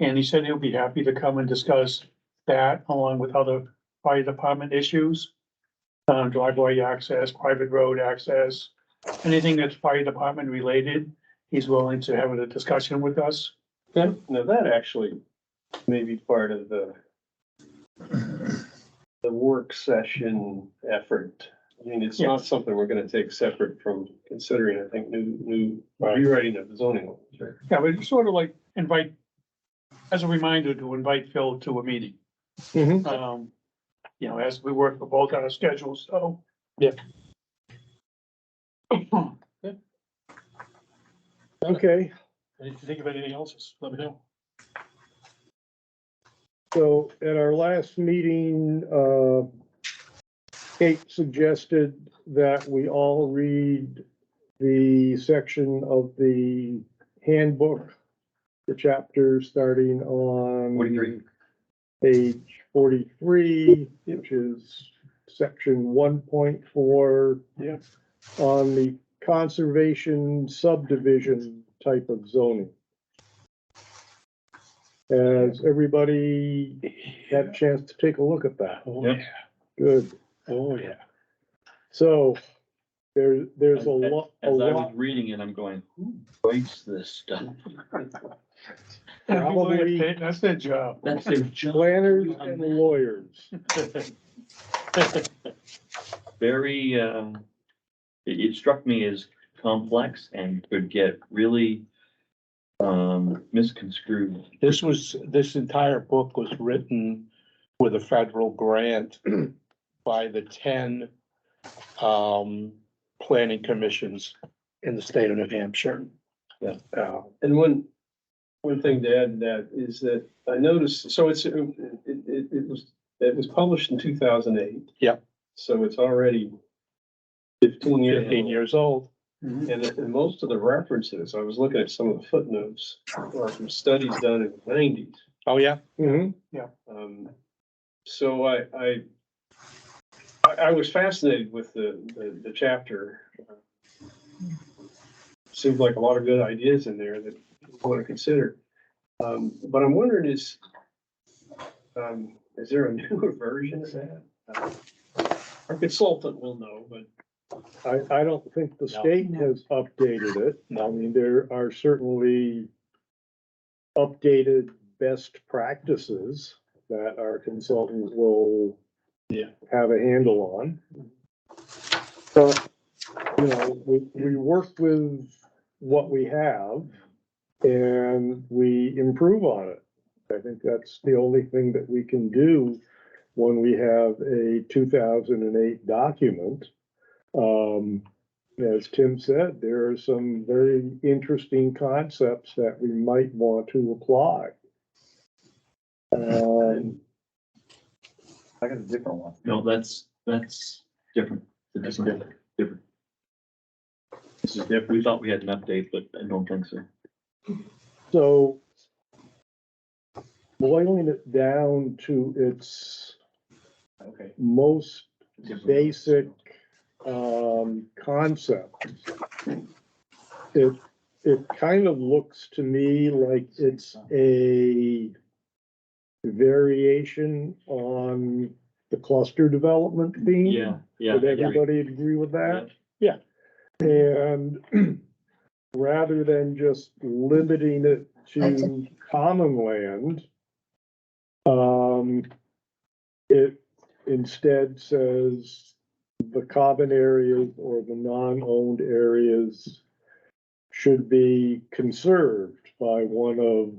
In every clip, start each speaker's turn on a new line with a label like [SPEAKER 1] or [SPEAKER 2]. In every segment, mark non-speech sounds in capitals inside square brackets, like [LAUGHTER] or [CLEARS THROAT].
[SPEAKER 1] And he said he'll be happy to come and discuss that along with other fire department issues. Um, driveway access, private road access, anything that's fire department related, he's willing to have a discussion with us.
[SPEAKER 2] Now, now that actually may be part of the the work session effort. I mean, it's not something we're gonna take separate from considering, I think, new, new rewriting of the zoning. law.
[SPEAKER 1] Yeah, but it's sort of like invite, as a reminder to invite Phil to a meeting.
[SPEAKER 3] Mm-hmm.
[SPEAKER 1] Um, you know, as we work for both our schedules, so. [COUGHS]
[SPEAKER 3] Yeah. Okay,
[SPEAKER 4] And if you think of anything else, just let me know.
[SPEAKER 3] so at our last meeting, uh, Kate suggested that we all read the section of the handbook, the chapter starting on page forty-three, which is section one point four.
[SPEAKER 2] Yeah.
[SPEAKER 3] On the conservation subdivision type of zoning. Has everybody had a chance to take a look at that?
[SPEAKER 2] Yep.
[SPEAKER 3] Good.
[SPEAKER 2] Oh, yeah.
[SPEAKER 3] So there, there's a
[SPEAKER 5] As-
[SPEAKER 3] lot, a
[SPEAKER 5] As I was
[SPEAKER 3] lot,
[SPEAKER 5] reading it, I'm going, who writes this stuff?
[SPEAKER 3] [LAUGHS] Probably-
[SPEAKER 1] That's their job.
[SPEAKER 5] That's their job.
[SPEAKER 3] planners and lawyers.
[SPEAKER 5] [LAUGHS] Very, um, it, it struck me as complex and could get really, um, misconstrued.
[SPEAKER 4] This was, this entire book was written with a federal grant by the ten um, planning commissions in the state of New Hampshire.
[SPEAKER 5] Yeah.
[SPEAKER 4] Uh,
[SPEAKER 2] And one, one thing to add to that is that I noticed, so it's, it, it, it was, it was published in two thousand eight.
[SPEAKER 4] Yep.
[SPEAKER 2] So it's already fifteen years.
[SPEAKER 4] Fifteen
[SPEAKER 2] old.
[SPEAKER 4] years old.
[SPEAKER 1] Mhm.
[SPEAKER 2] And, and most of the references, I was looking at some of the footnotes, are from studies done in the nineties.
[SPEAKER 4] Oh, yeah?
[SPEAKER 3] Mhm.
[SPEAKER 2] Um, so I, I, I, I was fascinated with the, the, the chapter. Seems like a lot of good ideas in there that I want to consider. Um, but I'm wondering is, um, is there a [LAUGHS] newer version of that? Uh, Our consultant will know, but
[SPEAKER 3] I, I don't think the
[SPEAKER 4] No.
[SPEAKER 3] state has updated it. I mean, there are certainly updated best practices that our consultant will
[SPEAKER 2] Yeah.
[SPEAKER 3] have a handle on. But, you know, we, we work with what we have and we improve on it. I think that's the only thing that we can do when we have a two thousand and eight document. Um, as Tim said, there are some very interesting concepts that we might want to apply. Um,
[SPEAKER 6] I got a different one.
[SPEAKER 5] No, that's, that's different.
[SPEAKER 6] That's
[SPEAKER 5] Different. Different.
[SPEAKER 6] This is different.
[SPEAKER 5] We thought we had an update, but I don't think so.
[SPEAKER 3] so boiling it down to its
[SPEAKER 6] Okay.
[SPEAKER 3] most
[SPEAKER 5] Different.
[SPEAKER 3] basic um, concept. It, it kind of looks to me like it's a variation on the cluster development theme.
[SPEAKER 5] Yeah, yeah. I
[SPEAKER 3] Would
[SPEAKER 5] agree.
[SPEAKER 3] everybody agree with
[SPEAKER 5] Yeah.
[SPEAKER 3] that? And [CLEARS THROAT] rather than just limiting it to common land, um, it instead says the common areas or the non-owned areas should be conserved by one of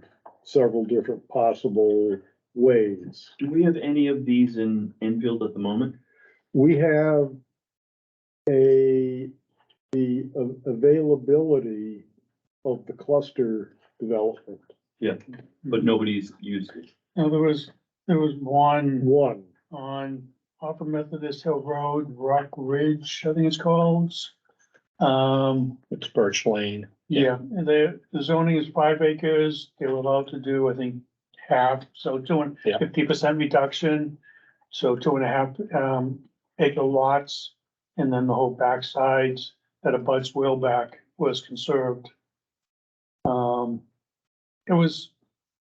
[SPEAKER 3] several different possible ways.
[SPEAKER 5] Do we have any of these in Enfield at the moment?
[SPEAKER 3] We have a, the a- availability of the cluster development,
[SPEAKER 5] But nobody's used it.
[SPEAKER 1] Now, there was, there was one
[SPEAKER 3] one.
[SPEAKER 1] on Upper Methodist Hill Road, Rock Ridge, I think it's called. Um,
[SPEAKER 4] It's Birch Lane.
[SPEAKER 1] yeah, and the the zoning is five acres. They were allowed to do, I think, half, so two and
[SPEAKER 4] Yeah.
[SPEAKER 1] fifty percent reduction. So two and a half um acre lots, and then the whole backsides that abuts Whaleback was conserved. Um, it was